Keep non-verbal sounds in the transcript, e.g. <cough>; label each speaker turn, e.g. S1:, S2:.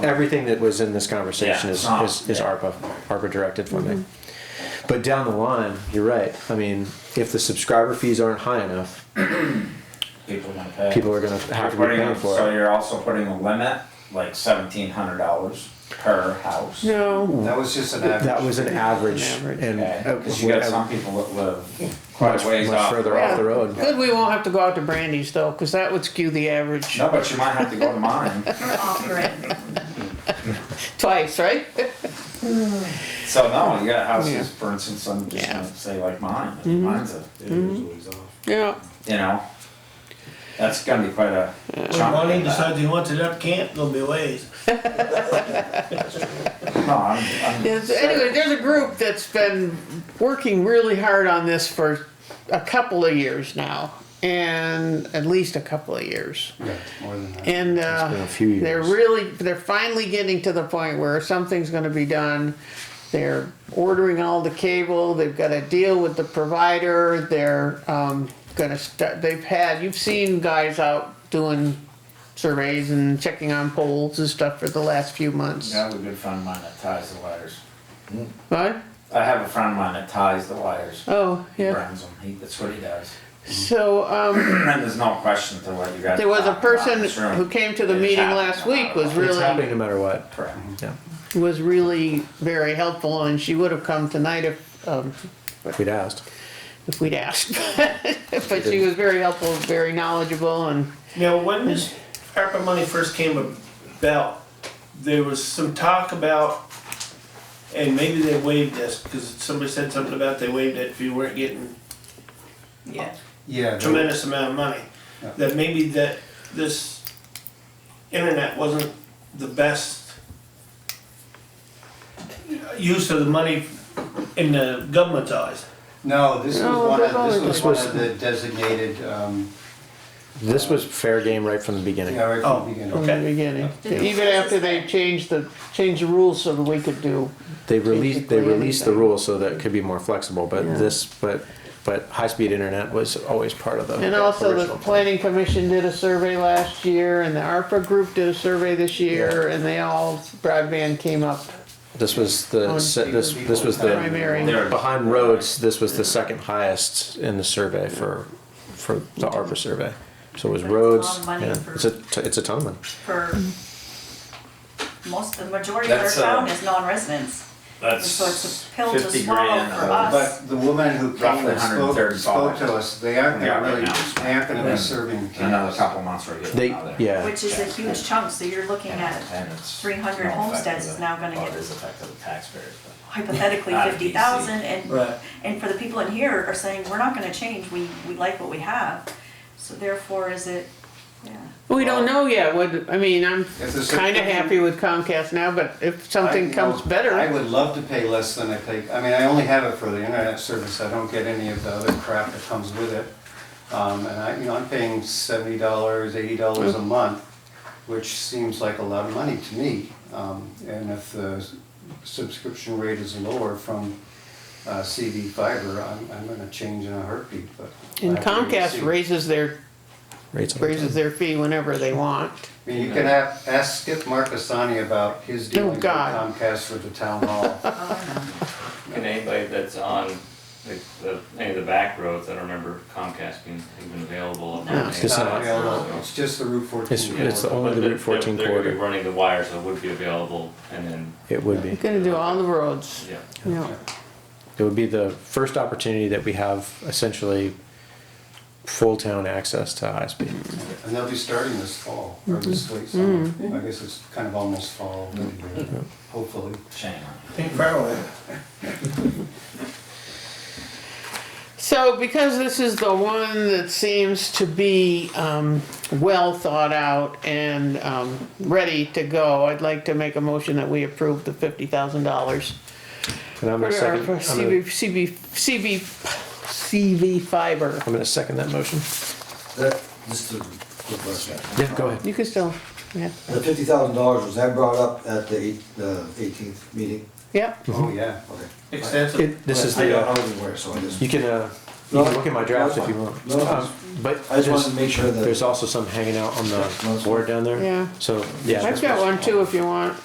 S1: everything that was in this conversation
S2: Yeah.
S1: is,
S3: Ah,
S1: is, is
S2: yeah.
S1: ARPA, ARPA directed funding.
S4: Mm-hmm.
S1: But down the line, you're right. I mean, if the subscriber fees aren't high enough,
S2: People want to pay.
S1: people are going to have to
S3: You're
S1: be
S3: putting
S1: paying
S3: a-
S1: for
S3: So
S1: it.
S3: you're also putting a limit, like seventeen hundred dollars per house.
S1: No,
S5: That was just an average.
S1: that was an average,
S4: Average.
S1: and
S3: Okay,
S1: uh,
S3: cause you got
S1: whatever-
S3: some people that live
S1: much,
S3: quite a ways
S1: much
S3: off.
S1: further
S4: road.
S1: off the road.
S4: Good, we won't have to go out to Brandy's though, because that would skew the average
S3: No, but you might have to go to mine.
S6: We're off grid.
S4: twice, right?
S3: So no, you got
S4: Yeah.
S3: houses, for instance, I'm just
S4: Yeah. Mm-hmm.
S3: gonna say like mine, mine's a,
S7: It is always off.
S4: Yeah,
S3: you know, that's gonna be quite a
S7: When
S3: chunk.
S7: Marlene decides he wants it up camp, there'll be ways.
S3: No, I'm, I'm.
S4: Yes, anyway, there's a group that's been working really hard on this for a couple of years now. And at least a couple of years.
S7: Yeah, more than that.
S4: And uh,
S1: been a few
S4: they're
S1: years.
S4: really, they're finally getting to the point where something's gonna be done. They're ordering all the cable, they've got a deal with the provider, they're um, gonna start, they've had, you've seen guys out doing surveys and checking on poles and stuff for the last few months.
S3: I have a good friend of mine that ties the wires.
S4: What?
S3: I have a friend of mine that ties the wires.
S4: Oh,
S3: He
S4: yeah.
S3: burns them, he, that's what he does.
S4: So, um,
S3: And there's no question to what you guys.
S4: there was a
S3: talked about in
S4: person
S3: this room.
S4: who came to the
S3: It's
S4: meeting
S3: happening
S4: last
S3: a lot
S4: week
S3: of
S4: was
S3: us.
S1: It's
S4: really,
S1: happening no matter what.
S3: Correct.
S1: Yeah,
S4: was really very helpful and she would have come tonight if, um,
S1: we'd asked.
S4: if we'd asked. <laughs> But she was very helpful, very knowledgeable and,
S7: Now, when this ARPA money first came about, there was some talk about, and maybe they waived this, because somebody said something about they waived it if you weren't getting
S6: Yeah.
S5: Yeah. that-
S7: tremendous amount of money.
S5: Yeah.
S7: That maybe that this internet wasn't the best use of the money in the government's eyes.
S5: No, this
S4: No,
S5: was one
S4: they've
S5: of,
S4: always-
S5: this was one of the designated, um,
S1: This was fair game right from the beginning.
S5: yeah, right
S7: Oh,
S5: from the beginning.
S4: from the
S7: Okay.
S4: beginning.
S6: Yeah.
S4: Even after they changed the, changed the rules so that we could do,
S1: They released they
S4: Basically
S1: released the
S4: anything.
S1: rule so that it could be more flexible, but
S4: Yeah.
S1: this but but high speed internet was always part of the
S4: And also the
S1: original plan.
S4: planning commission did a survey last year and the ARPA group did a survey this year and they all, broadband came up.
S1: This was the
S4: On
S1: se- Oh, this
S4: speed.
S1: this was
S4: Primary.
S1: the
S3: There.
S1: behind roads. This was the second highest in the survey for for the ARPA survey. So it was
S6: But it's a lot
S1: roads.
S6: of money
S1: yeah.
S6: for-
S1: It's a t- it's a ton of money.
S6: For most, the majority of our
S3: That's, uh,
S6: town is non-residents. So it's
S3: That's
S6: a pill to
S3: fifty
S6: swallow
S3: grand.
S6: for
S3: uh,
S6: us.
S5: But the woman who came
S3: Roughly
S5: and spoke,
S3: 135
S5: spoke to us, they aren't,
S3: Yeah,
S5: they're
S3: right
S5: really,
S3: now.
S5: they aren't gonna
S3: Yeah.
S5: be serving
S3: Another
S5: cannabis.
S3: couple months we're getting
S1: They
S3: out of there.
S1: yeah.
S6: Which is a huge chunk, so you're looking at
S3: And it's
S6: 300
S3: no effect
S6: homesteads
S3: to the-
S6: is now gonna
S3: well,
S6: get-
S3: It is effective to the taxpayers, but
S6: hypothetically
S3: Out of
S6: fifty thousand
S7: Right.
S6: and, and for the people in here are saying, we're not gonna change, we, we like what we have. So therefore, is it, yeah.
S4: We don't know yet, would, I mean, I'm
S5: If there's a-
S4: kinda happy with Comcast now, but if
S5: I-
S4: something
S5: you
S4: comes
S5: know, I
S4: better,
S5: would love to pay less than I pay, I mean, I only have it for the internet service, I don't get any of the other crap that comes with it. Um, and I, you know, I'm paying seventy dollars, eighty dollars a
S4: Mm.
S5: month, which seems like a lot of money to me. Um, and if the subscription rate is lower from, uh, CD fiber, I'm, I'm gonna change in a heartbeat, but.
S4: and
S5: I have to
S4: Comcast
S5: see.
S4: raises their,
S1: Rates all the
S4: raises
S1: time.
S4: their fee whenever they want.
S5: I mean, you could have, ask Skip Marcassani about his dealings with
S4: Oh, God.
S5: Comcast for the
S4: <laughs>
S5: town hall.
S8: Can anybody that's on the, the, any of the back roads, I don't remember Comcast being even available. on
S6: No.
S8: that
S1: It's
S5: It's
S8: day.
S1: not-
S5: not available, it's just the Route
S1: It's,
S5: 14.
S1: it's
S5: corridor.
S1: only
S8: But
S1: the
S8: they're-
S1: Route 14
S8: they're- They're gonna be
S1: corridor.
S8: running the wire, so it would be available, and then,
S1: It would be.
S4: Gonna do all the roads,
S8: yeah.
S4: yeah.
S1: It would be the first opportunity that we have essentially full town access to high speed.
S5: And they'll be starting this fall, or this late summer. I guess it's kind of almost fall, anyway,
S1: Mm-hmm.
S5: hopefully.
S3: shame on it.
S7: Ain't far away.
S4: So because this is the one that seems to be um, well thought out and um, ready to go, I'd like to make a motion that we approve the fifty thousand dollars.
S1: And I'm gonna
S4: For our-
S1: second,
S4: for
S1: I'm gonna-
S4: CB, CB, CB, CB fiber.
S1: I'm gonna second that motion.
S9: That, just Uh, a quick question.
S1: Yeah, go ahead.
S4: You can still, yeah,
S9: The fifty thousand dollars, was that brought up at the eight, the eighteenth meeting?
S4: yeah.
S5: Oh, yeah.
S9: Okay.
S7: Extensive.
S1: It, this is
S9: I
S1: the,
S9: don't-
S1: uh,
S9: I wasn't aware, so I just.
S1: you can, uh, You can look at my drafts if you want.
S9: No,
S1: Um, But
S9: I just
S1: there's,
S9: wanted to make sure that.
S1: there's also some hanging out on the board down there.
S4: Yeah.
S1: So, yeah.
S4: I've got one too if you want.